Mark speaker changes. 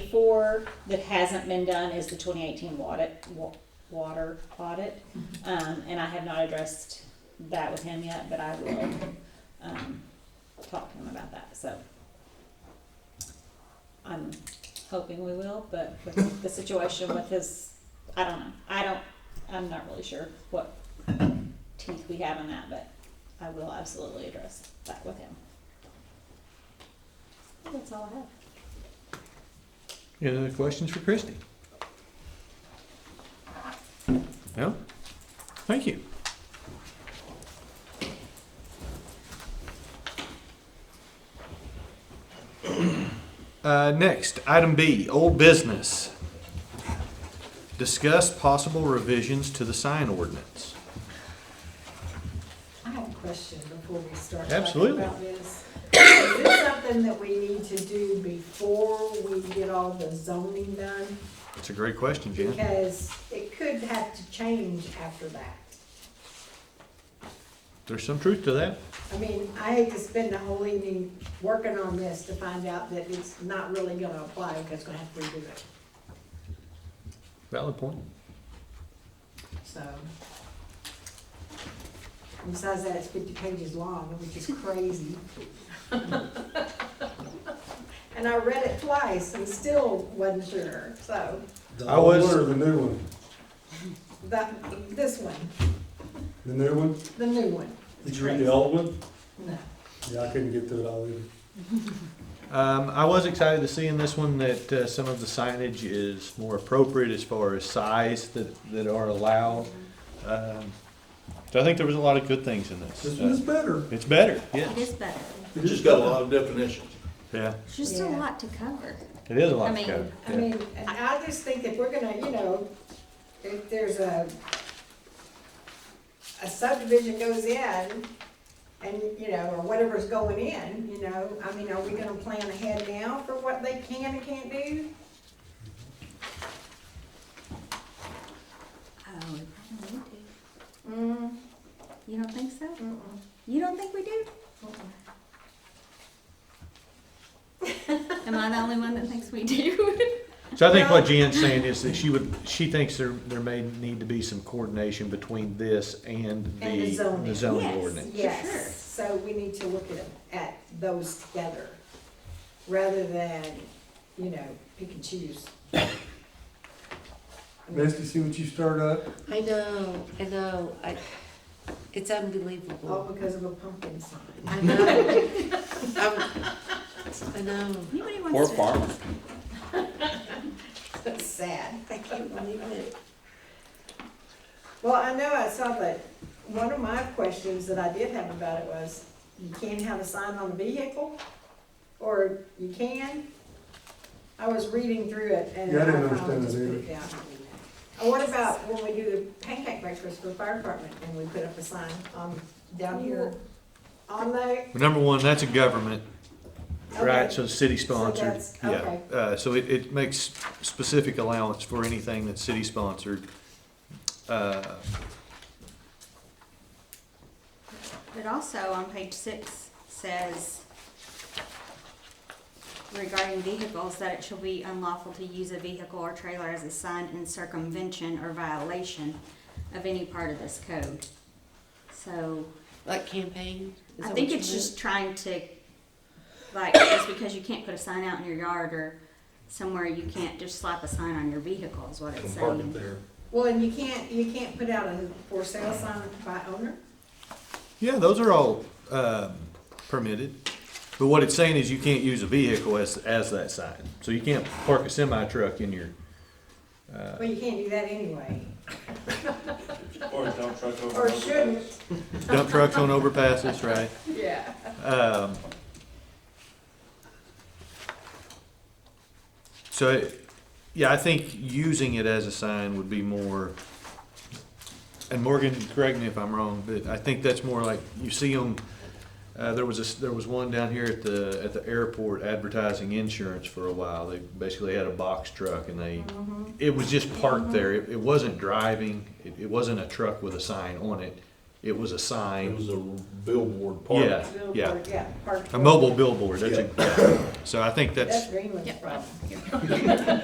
Speaker 1: before that hasn't been done is the twenty eighteen water, wa- water audit. Um, and I have not addressed that with him yet, but I will, um, talk to him about that, so. I'm hoping we will, but with the situation with his, I don't know, I don't, I'm not really sure what teeth we have on that, but I will absolutely address that with him. That's all I have.
Speaker 2: Any other questions for Christie? No? Thank you. Uh, next, item B, old business. Discuss possible revisions to the sign ordinance.
Speaker 3: I have a question before we start talking
Speaker 2: Absolutely.
Speaker 3: about this. Is this something that we need to do before we get all the zoning done?
Speaker 2: It's a great question, Jan.
Speaker 3: Because it could have to change after that.
Speaker 2: There's some truth to that.
Speaker 3: I mean, I hate to spend the whole evening working on this to find out that it's not really gonna apply, because it's gonna have to redo it,
Speaker 2: Valid point.
Speaker 3: so. Besides that, it's fifty pages long, which is crazy. And I read it twice and still wasn't sure, so.
Speaker 4: The
Speaker 2: I
Speaker 4: old
Speaker 2: was-
Speaker 4: one or the new one?
Speaker 3: That, this one,
Speaker 4: The new one?
Speaker 3: the new one,
Speaker 4: Did you read the old one?
Speaker 3: no.
Speaker 4: Yeah, I couldn't get through it all either.
Speaker 2: Um, I was excited to see in this one that uh, some of the signage is more appropriate as far as size that, that are allowed. Um, so I think there was a lot of good things in this.
Speaker 4: This one is better.
Speaker 2: Uh, it's better,
Speaker 5: It
Speaker 2: yes.
Speaker 5: is better.
Speaker 4: It
Speaker 6: It's
Speaker 4: is
Speaker 6: just got a
Speaker 4: better.
Speaker 6: lot of definitions.
Speaker 2: Yeah,
Speaker 5: It's just a
Speaker 3: Yeah.
Speaker 5: lot to cover.
Speaker 2: it is a lot
Speaker 5: I
Speaker 2: to
Speaker 5: mean,
Speaker 2: cover.
Speaker 3: I
Speaker 2: yeah.
Speaker 3: mean, and I just think if we're gonna, you know, if there's a, a subdivision goes in, and, you know, or whatever's going in, you know, I mean, are we gonna plan ahead now for what they can and can't do?
Speaker 5: Oh, we probably need to.
Speaker 3: Mm,
Speaker 5: You don't think so?
Speaker 3: mm-mm,
Speaker 5: You don't think we do?
Speaker 3: mm-mm.
Speaker 5: Am I the only one that thinks we do?
Speaker 2: So I think what Jan's saying is that she would, she thinks there, there may need to be some coordination between this and
Speaker 3: And the
Speaker 2: the,
Speaker 3: zoning.
Speaker 2: the zoning
Speaker 5: Yes.
Speaker 2: ordinance.
Speaker 5: sure.
Speaker 3: Yes, so we need to look at, at those together, rather than, you know, pick and choose.
Speaker 4: Misty, see what you start up?
Speaker 7: I know, I know, I, it's
Speaker 3: All
Speaker 7: unbelievable.
Speaker 3: because of a pumpkin sign.
Speaker 7: I know. I'm- I know,
Speaker 5: Anybody wants Poor to farmer.
Speaker 3: That's sad.
Speaker 7: I can't believe it.
Speaker 3: Well, I know I saw that, one of my questions that I did have about it was, you can't have a sign on a vehicle? Or you can? I was reading through it and.
Speaker 4: Yeah, I didn't
Speaker 3: found
Speaker 4: understand
Speaker 3: just
Speaker 4: that
Speaker 3: put
Speaker 4: either.
Speaker 3: it down. And what about when we do the pancake breakfast for the fire department and we put up a sign on, down here? On the,
Speaker 2: Well, Number one, that's a government, right,
Speaker 3: Okay.
Speaker 2: so city sponsored,
Speaker 3: that's-
Speaker 2: yeah.
Speaker 3: okay.
Speaker 2: Uh, so it, it makes specific allowance for anything that's city sponsored. Uh,
Speaker 5: It also on page six says regarding vehicles that it shall be unlawful to use a vehicle or trailer as a sign in circumvention or violation of any part of this code. So
Speaker 7: Like campaign? Is
Speaker 5: I
Speaker 7: that
Speaker 5: think
Speaker 7: what
Speaker 5: it's
Speaker 7: you
Speaker 5: just trying to, like, just because you can't put a sign out in your yard or somewhere, you can't just slap a sign on your vehicle is what it's saying.
Speaker 6: there.
Speaker 3: well, and you can't, you can't put out a for sale sign by owner?
Speaker 2: Yeah, those are all um, permitted. But what it's saying is you can't use a vehicle as, as that sign. So you can't park a semi truck in your, Uh.
Speaker 3: Well, you can't do that anyway,
Speaker 6: Or a dump truck over.
Speaker 3: or shouldn't,
Speaker 2: dump trucks on overpasses, right?
Speaker 3: yeah.
Speaker 2: Um, So, it- yeah, I think using it as a sign would be more, and Morgan, correct me if I'm wrong, but I think that's more like, you see them, uh, there was a, s- there was one down here at the, at the airport advertising insurance for a while. They basically had a box truck and they, it was just parked there. It, it wasn't driving, it, it wasn't a truck with a sign on it. it was a
Speaker 8: It
Speaker 2: sign.
Speaker 8: was a billboard park.
Speaker 2: Yeah, yeah.
Speaker 3: Billboard, Yeah, park.
Speaker 2: A mobile billboard, that's a, so I think that's.
Speaker 3: That's Greenland's problem.